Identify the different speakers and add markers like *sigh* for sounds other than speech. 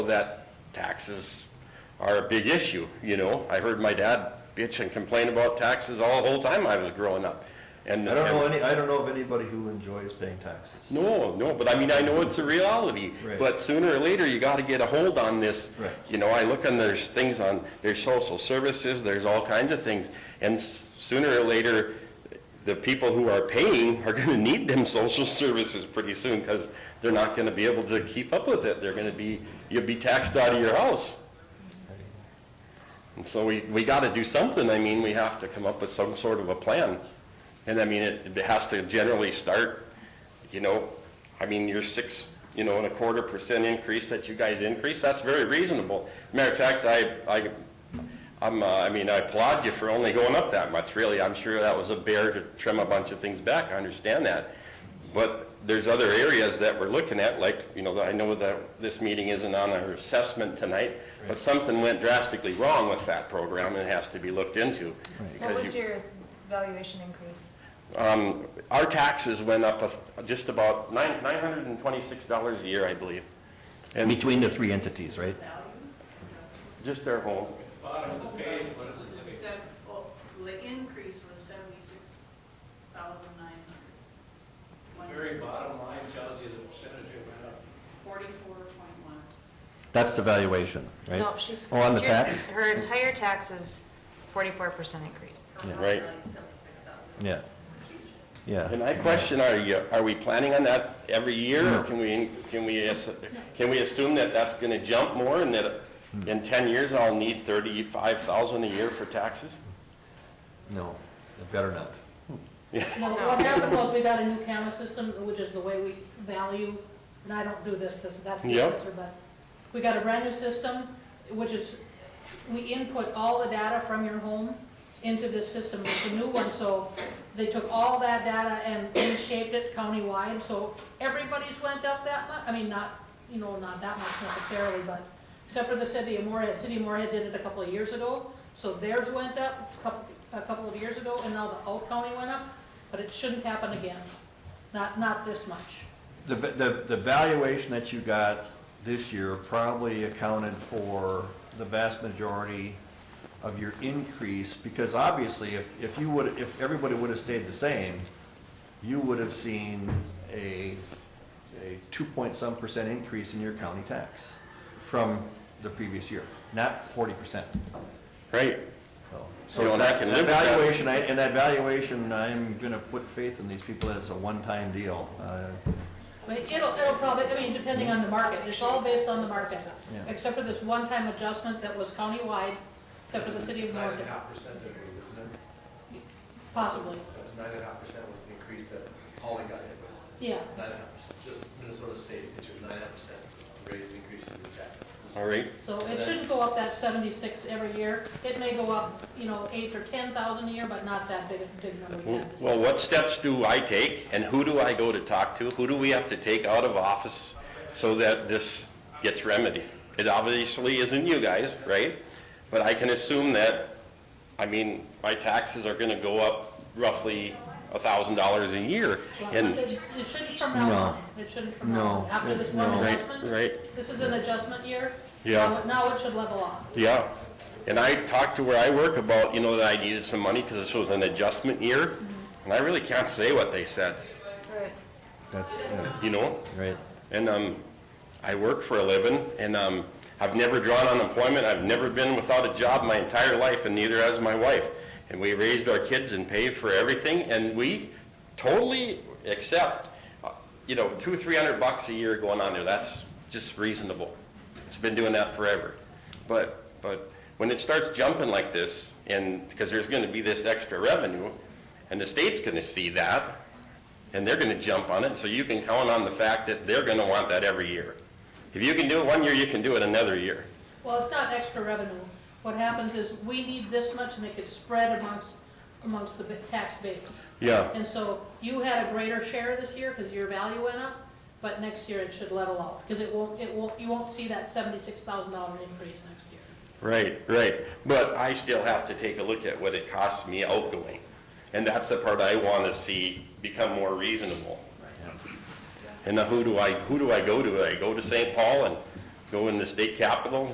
Speaker 1: that taxes are a big issue, you know? I heard my dad bitch and complain about taxes all the whole time I was growing up. And
Speaker 2: I don't know
Speaker 1: and-
Speaker 2: any, I don't know of anybody who enjoys paying taxes.
Speaker 1: No, no, but I mean, I know it's a reality,
Speaker 2: Right.
Speaker 1: but sooner or later, you gotta get a hold on this.
Speaker 2: Right.
Speaker 1: You know, I look and there's things on, there's social services, there's all kinds of things. And s- sooner or later, the people who are paying are gonna need them *laughs* social services pretty soon because they're not gonna be able to keep up with it. They're gonna be, you'll be taxed out of your house. And so we, we got to do something. I mean, we have to come up with some sort of a plan. And I mean, it, it has to generally start, you know, I mean, your six, you know, and a quarter percent increase that you guys increase, that's very reasonable. Matter of fact, I, I, I'm, uh, I mean, I applaud you for only going up that much, really. I'm sure that was a bear to trim a bunch of things back. I understand that. But there's other areas that we're looking at, like, you know, I know that this meeting isn't on our assessment tonight, but something went drastically wrong with that program and it has to be looked into.
Speaker 3: What
Speaker 1: because
Speaker 3: was
Speaker 1: you-
Speaker 3: your valuation increase?
Speaker 1: Um, our taxes went up a th- just about nine, nine hundred and twenty-six dollars a year, I believe,
Speaker 2: And between the three entities, right?
Speaker 1: just our home.
Speaker 4: was sev- oh, the increase was seventy-six thousand nine hundred.
Speaker 5: Very bottom line tells you the percentage it went up.
Speaker 4: Forty-four point one.
Speaker 2: That's the valuation, right?
Speaker 6: No, she's.
Speaker 2: Oh, on the
Speaker 6: her-
Speaker 2: tax?
Speaker 6: Her entire tax is forty-four percent increase.
Speaker 1: Yeah. Right.
Speaker 2: Yeah. Yeah.
Speaker 1: And I question, are you, are we planning on that every year? Or can we, can we, ass- can we assume that that's gonna jump more and that in ten years I'll need thirty-five thousand a year for taxes?
Speaker 2: No, it better not.
Speaker 7: No, what happened was we got a new camera system, which is the way we value, and I don't do this, this- that's the
Speaker 1: Yep.
Speaker 7: assessor, but we got a brand new system, which is, we input all the data from your home into this system, it's a new one, so they took all that data and reshaped it countywide, so everybody's went up that much, I mean, not, you know, not that much necessarily, but except for the city of Morehead, city of Morehead did it a couple of years ago, so theirs went up a couple, a couple of years ago, and now the whole county went up, but it shouldn't happen again, not, not this much.
Speaker 2: The, va- the, the valuation that you got this year probably accounted for the vast majority of your increase, because obviously, if, if you would, if everybody would have stayed the same, you would have seen a, a two point some percent increase in your county tax from the previous year, not forty percent.
Speaker 1: Right?
Speaker 2: So
Speaker 1: You know, and
Speaker 2: it's
Speaker 1: I
Speaker 2: that
Speaker 1: can live with that.
Speaker 2: valuation, I- and that valuation, I'm gonna put faith in these people that it's a one-time deal. Uh,
Speaker 7: But it'll, it'll probably, I mean, depending on the market, it's all based on the market,
Speaker 2: Yeah.
Speaker 7: except for this one-time adjustment that was countywide, except for the city of
Speaker 5: Nine and
Speaker 7: Norwood,
Speaker 5: a half percent, I believe, isn't it?
Speaker 7: possibly,
Speaker 5: That's nine and a half percent was the increase that Holly got hit with.
Speaker 7: yeah.
Speaker 5: Nine and a half percent, just Minnesota State, it's your nine and a half percent raise and increase in your tax.
Speaker 1: All right?
Speaker 7: So it shouldn't go up that seventy-six every year, it may go up, you know, eight or ten thousand a year, but not that big, a big number. we
Speaker 1: Well,
Speaker 7: had this
Speaker 1: well, what steps do I take and who do I go to talk to? Who do we have to take out of office so that this gets remedied? It obviously isn't you guys, right? But I can assume that, I mean, my taxes are gonna go up roughly a thousand dollars a year.
Speaker 7: Well,
Speaker 1: And,
Speaker 7: It it shouldn't from now
Speaker 2: No.
Speaker 7: on, it shouldn't from now
Speaker 2: No.
Speaker 7: on, after this one
Speaker 2: No.
Speaker 1: Right,
Speaker 7: adjustment,
Speaker 1: right,
Speaker 7: this is an adjustment year.
Speaker 1: Yeah.
Speaker 7: Now it- Now it should level off.
Speaker 1: yeah. And I talked to where I work about, you know, that I needed some money because this was an adjustment year. And I really can't say what they said,
Speaker 6: Right.
Speaker 2: That's, yeah,
Speaker 1: you know?
Speaker 2: right.
Speaker 1: And um, I work for a living, and um, I've never drawn unemployment. I've never been without a job my entire life, and neither has my wife. And we raised our kids and paid for everything, and we totally accept, uh, you know, two, three hundred bucks a year going on there. That's just reasonable. It's been doing that forever. But, but when it starts jumping like this, and, because there's going to be this extra revenue, and the state's going to see that, and they're gonna jump on it, so you can count on the fact that they're gonna want that every year. If you can do it one year, you can do it another year.
Speaker 7: Well, it's not extra revenue. What happens is, we need this much, and it gets spread amongst, amongst the ba- tax base.
Speaker 1: Yeah.
Speaker 7: And so you had a greater share this year because your value went up, but next year it should level out, because it won't, it won't, you won't see that seventy-six thousand dollar increase next year.
Speaker 1: Right, right. But I still have to take a look at what it costs me outgoing. And that's the part I wanna see become more reasonable. And now who do I, who do I go to? I go to St. Paul and go in the state capitol,